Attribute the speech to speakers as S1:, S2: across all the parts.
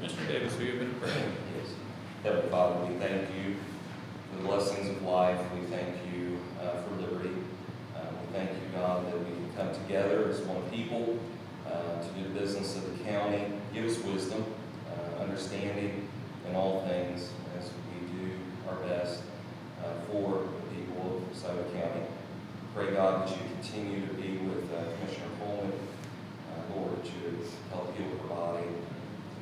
S1: who you've been praying.
S2: Yes. Heavenly Father, we thank you for the blessings of life. We thank you uh, for liberty. Uh, We thank you, God, that we can come together as one people uh, to do the business of the county. Give us wisdom, uh, understanding in all things as we do our best uh, for the people of Scioto County. Pray, God, that you continue to be with uh, Commissioner Coleman. Uh, Lord, that you would help heal her body.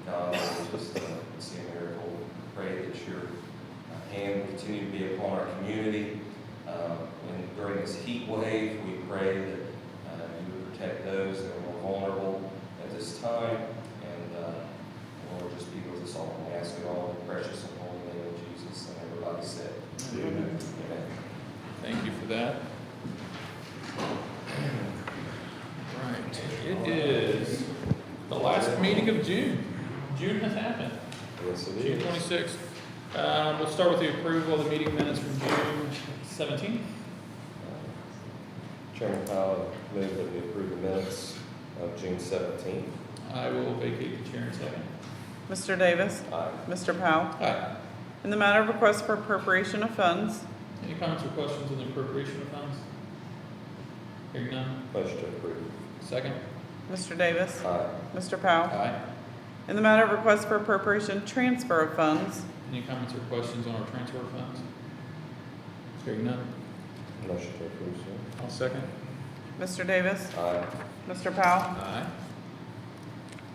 S2: God, we just uh, see a miracle. We Pray that your uh, hand will continue to be upon our community. Uh, And during this heat wave, we pray that uh, you would protect those that are more vulnerable at this time. And uh, Lord, just be with us all. We ask it all in the precious and holy name of Jesus. And everybody said,
S1: Amen.
S2: Amen.
S1: Thank you for that. Right, it is the last meeting of June. June has happened.
S2: Yes, it
S1: June twenty-sixth. Um, we'll start with the approval of the meeting minutes from June seventeenth.
S2: Uh, Chairman Powell, move that we approve the minutes of June seventeenth.
S1: I will vacate the chair in a second.
S3: Mr. Davis.
S2: Aye.
S3: Mr. Powell.
S1: Aye.
S3: In the matter of request for appropriation of funds,
S1: Any comments or questions on the appropriation of funds? Hearing none.
S2: Motion to approve.
S1: Second.
S3: Mr. Davis.
S2: Aye.
S3: Mr. Powell.
S1: Aye.
S3: In the matter of request for appropriation transfer of funds,
S1: Any comments or questions on our transfer funds? Hearing none.
S2: Motion to approve,
S1: I'll second.
S3: Mr. Davis.
S2: sir. Aye.
S3: Mr. Powell.
S1: Aye.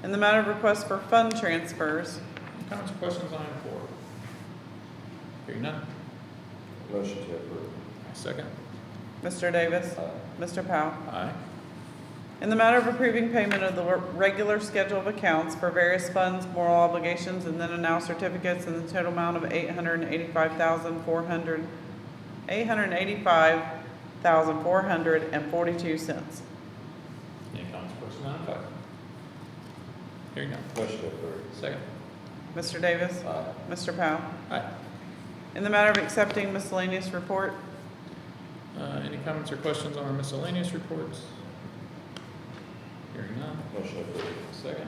S3: In the matter of request for fund transfers,
S1: Any comments or questions on item four? Hearing none.
S2: Motion to approve.
S1: I'll second.
S3: Mr. Davis.
S2: Aye.
S3: Mr. Powell.
S1: Aye.
S3: In the matter of approving payment of the re- regular schedule of accounts for various funds, moral obligations, and then and now certificates in the total amount of eight hundred and eighty-five thousand, four hundred, eight hundred and eighty-five thousand, four hundred and forty-two cents.
S1: Any comments or questions on item five? Hearing none.
S2: Motion to approve.
S1: Second.
S3: Mr. Davis?
S2: Aye.
S3: Mr. Powell?
S1: Aye.
S3: In the matter of accepting miscellaneous report,
S1: Uh, any comments or questions on our miscellaneous reports? Hearing none.
S2: Motion to approve.
S1: Second.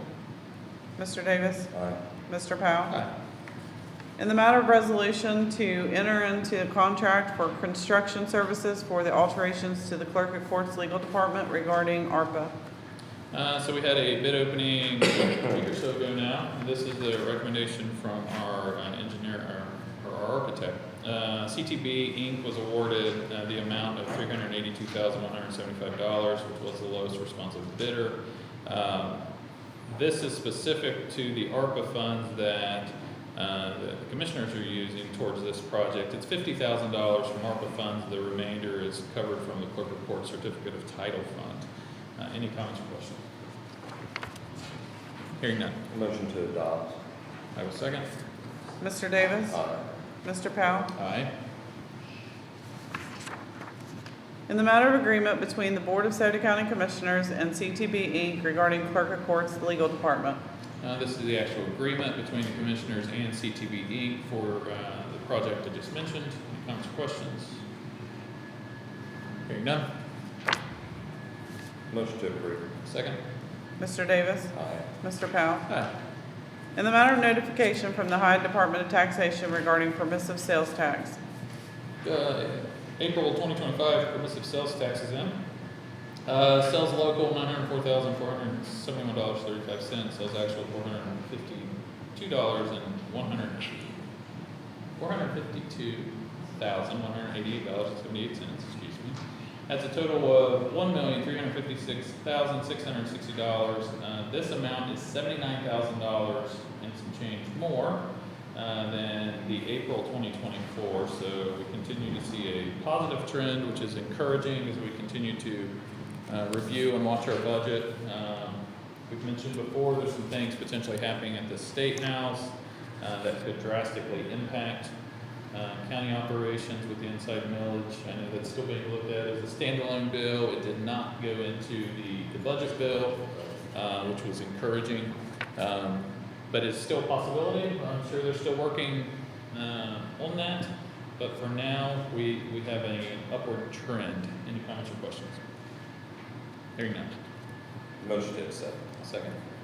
S3: Mr. Davis?
S2: Aye.
S3: Mr. Powell?
S1: Aye.
S3: In the matter of resolution to enter into a contract for construction services for the alterations to the clerk of court's legal department regarding ARPA.
S1: Uh, so we had a bid opening a week or so ago now, and this is the recommendation from our uh, engineer, or our architect. Uh, CTB Inc. was awarded uh, the amount of three hundred eighty-two thousand one hundred seventy-five dollars, which was the lowest responsive bidder. Um, This is specific to the ARPA funds that uh, the commissioners are using towards this project. It's fifty thousand dollars from ARPA funds, the remainder is covered from the clerk of court certificate of title fund. Uh, Any comments or questions? Hearing none.
S2: Motion to adopt.
S1: I will second.
S3: Mr. Davis?
S2: Aye.
S3: Mr. Powell?
S1: Aye.
S3: In the matter of agreement between the Board of Sauter County Commissioners and CTB Inc. regarding clerk of court's legal department.
S1: Uh, This is the actual agreement between the commissioners and CTB Inc. for uh, the project I just mentioned. Any comments or questions? Hearing none.
S2: Motion to approve.
S1: Second.
S3: Mr. Davis?
S2: Aye.
S3: Mr. Powell?
S1: Aye.
S3: In the matter of notification from the High Department of Taxation regarding permissive sales tax.
S1: Uh, April twenty twenty-five permissive sales tax is in. Uh, Sales local, nine hundred four thousand four hundred seventy-one dollars thirty-five cents. Sales actual, four hundred fifty-two dollars and one hundred, four hundred fifty-two thousand one hundred eighty-eight dollars and seventy-eight cents, excuse me. That's a total of one million three hundred fifty-six thousand six hundred sixty dollars. Uh, This amount is seventy-nine thousand dollars and some change more uh, than the April 2024. So we continue to see a positive trend, which is encouraging as we continue to uh, review and watch our budget. Um, We've mentioned before, there's some things potentially happening at the State House uh, that could drastically impact uh, county operations with the inside millage. I know that's still being looked at as a standalone bill. It did not go into the the budget bill, uh, which was encouraging. Um, but it's still a possibility. I'm sure they're still working uh, on that. But for now, we, we have an upward trend. Any comments or questions? Hearing none.
S2: Motion to accept.
S1: Second.